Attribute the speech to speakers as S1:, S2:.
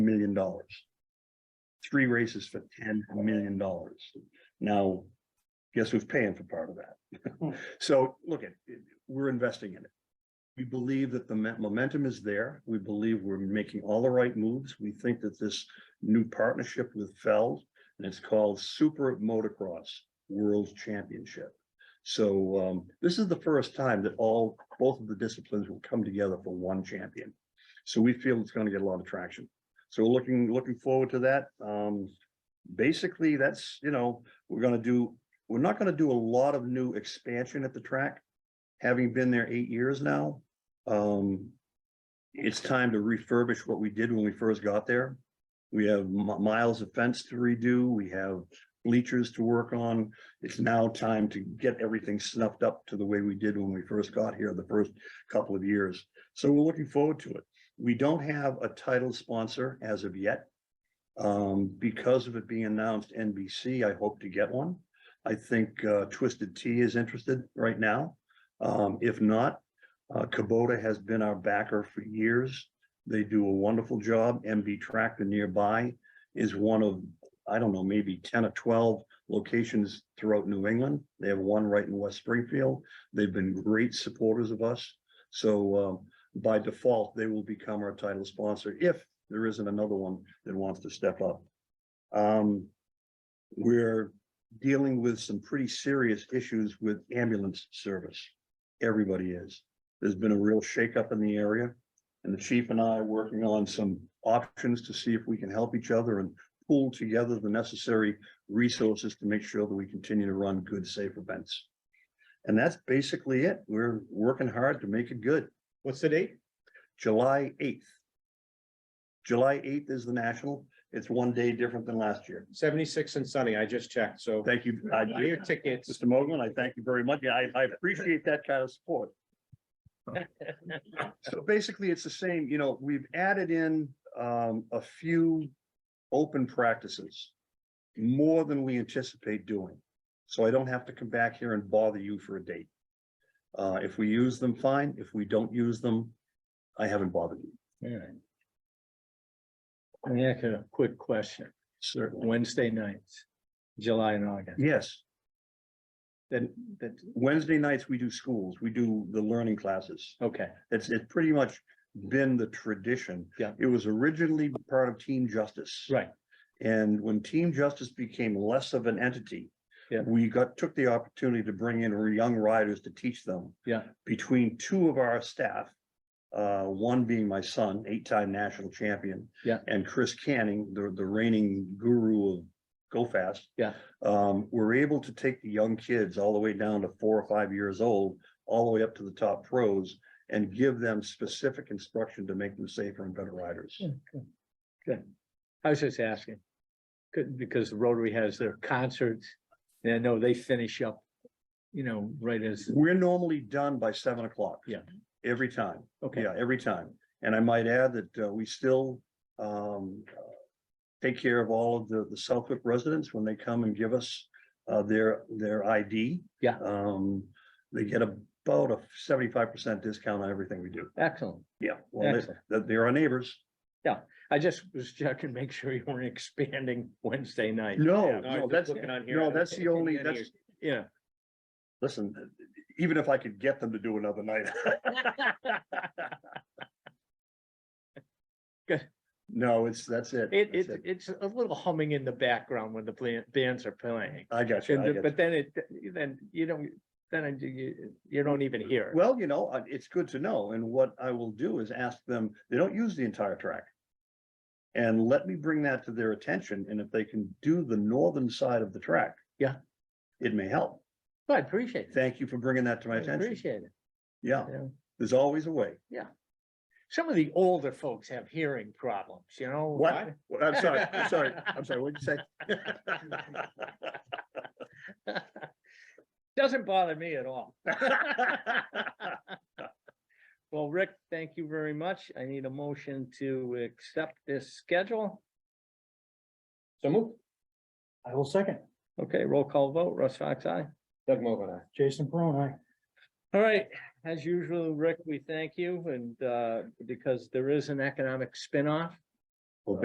S1: million dollars. Three races for ten million dollars. Now, guess who's paying for part of that? So look at, we're investing in it. We believe that the mo- momentum is there. We believe we're making all the right moves. We think that this new partnership with Feld, and it's called Super Motocross World Championship. So um, this is the first time that all, both of the disciplines will come together for one champion. So we feel it's gonna get a lot of traction. So we're looking, looking forward to that. Um, basically, that's, you know, we're gonna do, we're not gonna do a lot of new expansion at the track. Having been there eight years now, um, it's time to refurbish what we did when we first got there. We have mi- miles of fence to redo. We have bleachers to work on it's now time to get everything snuffed up to the way we did when we first got here the first couple of years. So we're looking forward to it. We don't have a title sponsor as of yet. Um, because of it being announced NBC, I hope to get one. I think uh, Twisted Tea is interested right now. Um, if not, uh, Kubota has been our backer for years. They do a wonderful job. MB Tractor nearby is one of, I don't know, maybe ten or twelve locations throughout New England. They have one right in West Springfield. They've been great supporters of us. So um, by default, they will become our title sponsor if there isn't another one that wants to step up. Um, We're dealing with some pretty serious issues with ambulance service. Everybody is. There's been a real shakeup in the area. And the chief and I are working on some options to see if we can help each other and pool together the necessary resources to make sure that we continue to run good, safe events. And that's basically it. We're working hard to make it good.
S2: What's the date?
S1: July eighth. July eighth is the national. It's one day different than last year.
S2: Seventy-six and sunny, I just checked, so.
S1: Thank you. I-
S2: Buy Your tickets.
S1: Mr. Mogul, I thank you very much. Yeah, I, I appreciate that kind of support. So basically, it's the same, you know, we've added in, um, a few open practices. More than we anticipate doing, so I don't have to come back here and bother you for a date. Uh, if we use them, fine. If we don't use them, I haven't bothered you,
S3: Let me ask you a quick question.
S1: certainly.
S3: Wednesday nights, July and August,
S1: Yes,
S3: then, that,
S1: Wednesday nights, we do schools, we do the learning classes.
S3: okay,
S1: It's, it's pretty much been the tradition.
S3: Yeah.
S1: It was originally part of Team Justice.
S3: right,
S1: And when Team Justice became less of an entity.
S3: Yeah.
S1: We got, took the opportunity to bring in young riders to teach them.
S3: Yeah.
S1: Between two of our staff, uh, one being my son, eight-time national champion.
S3: Yeah.
S1: And Chris Canning, the, the reigning guru of Go Fast.
S3: Yeah.
S1: Um, we're able to take the young kids all the way down to four or five years old, all the way up to the top pros. And give them specific instruction to make them safer and better riders.
S3: Yeah. I was just asking. Could, because the Rotary has their concerts, and I know they finish up, you know, right as,
S1: We're normally done by seven o'clock.
S3: Yeah.
S1: Every time,
S3: okay,
S1: yeah, every time. And I might add that uh, we still um take care of all of the the Southwick residents when they come and give us uh their their ID.
S3: Yeah.
S1: Um, they get about a seventy-five percent discount on everything we do.
S3: excellent.
S1: Yeah, well, they-
S3: Excellent.
S1: that they're our neighbors.
S3: I just was checking, make sure you weren't expanding Wednesday night.
S1: No,
S2: I was
S1: no,
S2: just
S1: that's,
S2: looking on here.
S1: no, that's the only,
S2: Anything on
S1: that's,
S3: Yeah,
S1: listen, even if I could get them to do another night.
S3: Good.
S1: No, it's, that's it.
S3: it,
S1: that's
S3: it, it's a little humming in the background when the plan- bands are playing.
S1: I got you. I
S3: And,
S1: got
S3: the-
S1: you.
S3: but then it, then you don't, then it- you, you don't even hear. it.
S1: Well, you know, uh, it's good to know. And what I will do is ask them, they don't use the entire track. And let me bring that to their attention. And if they can do the northern side of the track.
S3: Yeah.
S1: It may help.
S3: I appreciate it.
S1: Thank you for bringing that to my
S3: I
S1: attention.
S3: Appreciate it.
S1: Yeah,
S3: you know.
S1: there's always a way.
S3: Some of the older folks have hearing problems, you know?
S1: What? Well, I'm sorry, I'm sorry, I'm sorry, what'd you say?
S3: Doesn't bother me at all. Well, Rick, thank you very much. I need a motion to accept this schedule.
S2: So move. I will second.
S3: Okay, roll call vote. Russ Fox, aye.
S2: Doug Mogul, aye.
S4: Jason Peron, I.
S3: All right, as usual, Rick, we thank you and uh, because there is an economic spinoff